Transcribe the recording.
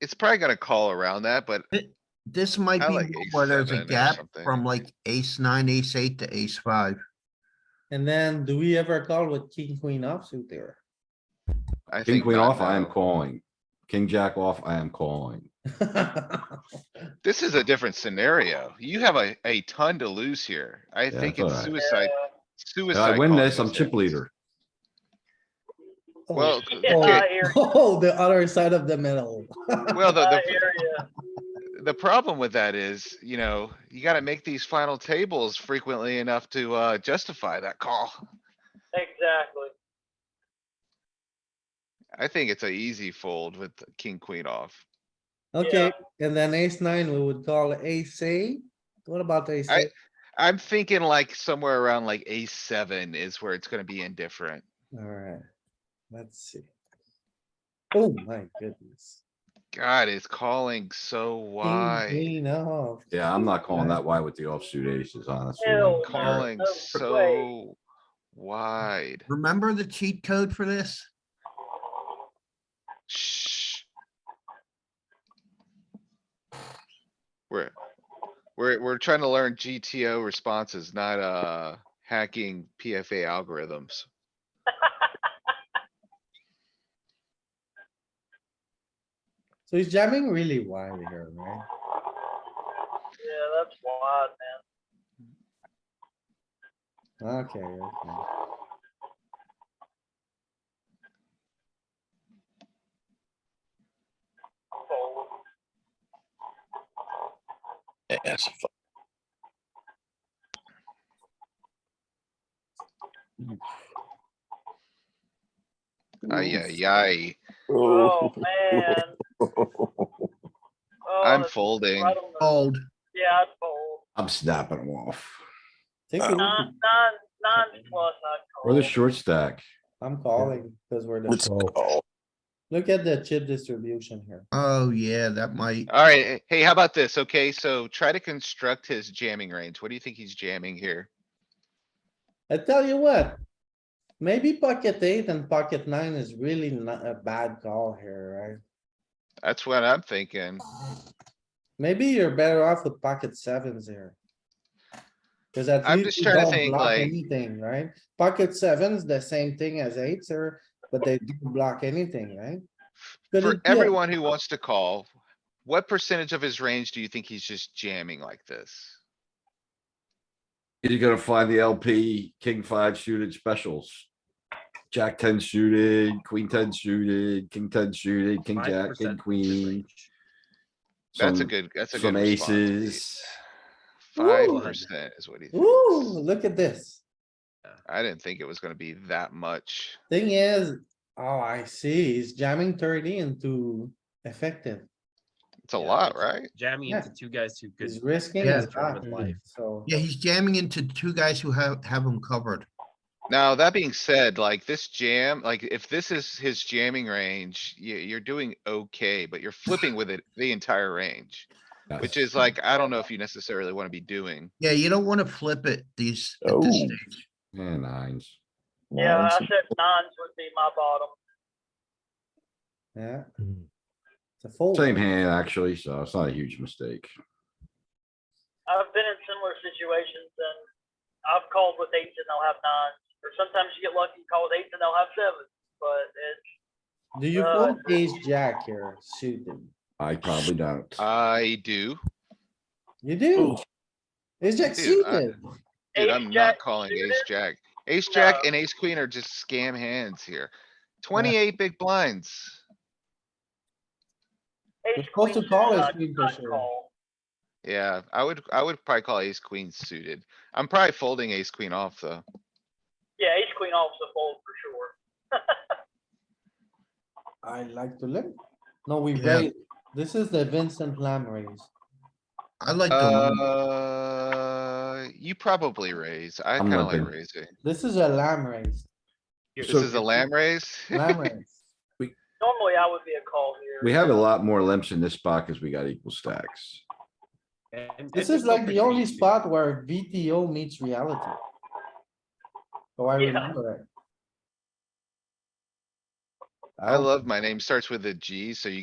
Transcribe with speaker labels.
Speaker 1: It's probably gonna call around that, but
Speaker 2: This might
Speaker 1: I
Speaker 2: be
Speaker 1: like
Speaker 2: more
Speaker 1: ace
Speaker 2: where there's a
Speaker 1: seven or
Speaker 2: gap
Speaker 1: something.
Speaker 2: from like ace nine, ace eight to ace five.
Speaker 3: And then do we ever call with king, queen offsuit there?
Speaker 1: I think.
Speaker 4: King queen
Speaker 1: not
Speaker 4: off, I am
Speaker 1: now.
Speaker 4: calling. King jack off, I am calling.
Speaker 1: This is a different scenario. You have a, a ton to lose here. I think it's
Speaker 4: it's alright.
Speaker 1: suicide,
Speaker 4: If
Speaker 1: suicide.
Speaker 4: I win
Speaker 1: calling
Speaker 4: this, I'm chip
Speaker 1: thing.
Speaker 4: leader.
Speaker 1: Well,
Speaker 3: okay.
Speaker 1: okay,
Speaker 3: Oh, the other side of the middle.
Speaker 1: well, the, the. The problem with that is, you know, you gotta make these final tables frequently enough to, uh, justify that call.
Speaker 5: Exactly.
Speaker 1: I think it's a easy fold with king, queen off.
Speaker 3: Okay, and then ace nine, we would call ace eight. What about ace
Speaker 1: I-
Speaker 3: eight?
Speaker 1: I'm thinking like somewhere around like ace seven is where it's gonna be indifferent.
Speaker 3: Alright, let's see. Oh my goodness.
Speaker 1: God, it's calling so
Speaker 3: King,
Speaker 1: wide.
Speaker 3: Queen off.
Speaker 4: Yeah, I'm not calling that wide with the offsuit aces, honestly.
Speaker 5: Ew.
Speaker 1: Calling
Speaker 5: No
Speaker 1: so wide.
Speaker 2: Remember the cheat code for this?
Speaker 1: Shh. We're, we're, we're trying to learn GTO responses, not, uh, hacking PFA algorithms.
Speaker 3: So he's jamming really wide here, right?
Speaker 5: Yeah, that's wild, man.
Speaker 3: Okay, okay.
Speaker 5: Fold.
Speaker 1: Ay, ay, ay.
Speaker 5: Oh, man. Oh,
Speaker 1: I'm
Speaker 5: that's
Speaker 1: folding.
Speaker 5: right on the-
Speaker 2: Fold.
Speaker 5: Yeah, I'd fold.
Speaker 4: I'm snapping them off.
Speaker 3: Take a look at-
Speaker 5: Non, non, non plus, I'd call.
Speaker 4: Or the short stack.
Speaker 3: I'm calling because we're
Speaker 6: Let's
Speaker 3: the,
Speaker 6: go.
Speaker 3: look at the chip distribution here.
Speaker 2: Oh, yeah, that might.
Speaker 1: Alright, hey, how about this? Okay, so try to construct his jamming range. What do you think he's jamming here?
Speaker 3: I tell you what. Maybe pocket eight and pocket nine is really not a bad call here, right?
Speaker 1: That's what I'm thinking.
Speaker 3: Maybe you're better off with pocket sevens here. Cause at
Speaker 1: I'm
Speaker 3: least
Speaker 1: just
Speaker 3: you
Speaker 1: trying to
Speaker 3: don't
Speaker 1: think,
Speaker 3: block
Speaker 1: like-
Speaker 3: anything, right? Pocket sevens, the same thing as eights are, but they do block anything, right? Could
Speaker 1: For
Speaker 3: it be a-
Speaker 1: everyone
Speaker 5: uh
Speaker 1: who wants to call, what percentage of his range do you think he's just jamming like this?
Speaker 4: You're gonna find the LP, king five suited specials. Jack ten suited, queen ten suited, king ten suited, king jack, king queen.
Speaker 1: That's a
Speaker 4: some-
Speaker 1: good, that's a good
Speaker 4: Some
Speaker 1: response.
Speaker 4: aces.
Speaker 1: Five percent is what he
Speaker 3: Ooh,
Speaker 1: thinks.
Speaker 3: look at this.
Speaker 1: I didn't think it was gonna be that much.
Speaker 3: Thing is, oh, I see, he's jamming thirty into effective.
Speaker 1: It's a
Speaker 7: Yeah,
Speaker 1: lot,
Speaker 7: that's-
Speaker 1: right?
Speaker 7: jamming
Speaker 3: Yeah.
Speaker 7: into two guys who could
Speaker 3: He's risking
Speaker 2: Yeah.
Speaker 3: his
Speaker 7: German
Speaker 3: life,
Speaker 7: life.
Speaker 3: so.
Speaker 2: Yeah, he's jamming into two guys who have, have him covered.
Speaker 1: Now, that being said, like this jam, like if this is his jamming range, you, you're doing okay, but you're flipping with it the entire range. Which is like, I don't know if you necessarily wanna be doing.
Speaker 2: Yeah, you don't want to flip it these, at this
Speaker 6: Oh.
Speaker 2: stage.
Speaker 4: Yeah, nines.
Speaker 5: Yeah, I said nines would be my bottom.
Speaker 3: Yeah,
Speaker 2: Mm-hmm.
Speaker 3: it's a fold.
Speaker 4: Same hand, actually, so it's not a huge mistake.
Speaker 5: I've been in similar situations and I've called with eights and they'll have nines. Or sometimes you get lucky and call with eights and they'll have sevens, but it's,
Speaker 3: Do you
Speaker 5: Uh,
Speaker 3: fold ace jack here suited?
Speaker 4: I probably don't.
Speaker 1: Uh, I do.
Speaker 3: You do? Ace jack
Speaker 1: Dude, I-
Speaker 3: suited.
Speaker 1: Dude,
Speaker 5: Ace
Speaker 1: I'm
Speaker 5: jack
Speaker 1: not calling
Speaker 5: suited?
Speaker 1: ace jack. Ace jack
Speaker 5: No.
Speaker 1: and ace queen are just scam hands here. Twenty-eight big blinds.
Speaker 5: ace
Speaker 3: You're supposed to
Speaker 5: queen
Speaker 3: call
Speaker 5: suited,
Speaker 3: ace
Speaker 5: I'd
Speaker 3: queen for
Speaker 5: not
Speaker 3: sure.
Speaker 5: call.
Speaker 1: Yeah, I would, I would probably call ace queen suited. I'm probably folding ace queen off though.
Speaker 5: Yeah, ace queen off's a fold for sure.
Speaker 3: I like to limp. No, we
Speaker 2: Yeah.
Speaker 3: raise. This is the Vincent Lam raise.
Speaker 2: I like the,
Speaker 1: Uh, you probably raise. I
Speaker 4: I'm
Speaker 1: kinda like
Speaker 4: limping.
Speaker 1: raising.
Speaker 3: This is a lamb raise,
Speaker 1: This
Speaker 4: So-
Speaker 1: is a lamb raise.
Speaker 3: lamb raise.
Speaker 5: Normally I would be a call here.
Speaker 4: We have a lot more limps in this spot because we got equal stacks.
Speaker 7: And-
Speaker 3: This
Speaker 7: and
Speaker 3: is like
Speaker 7: open
Speaker 3: the only
Speaker 7: means you-
Speaker 3: spot where VTO meets reality. Oh, I
Speaker 5: Yeah.
Speaker 3: remember it.
Speaker 1: I love my name starts with a G, so you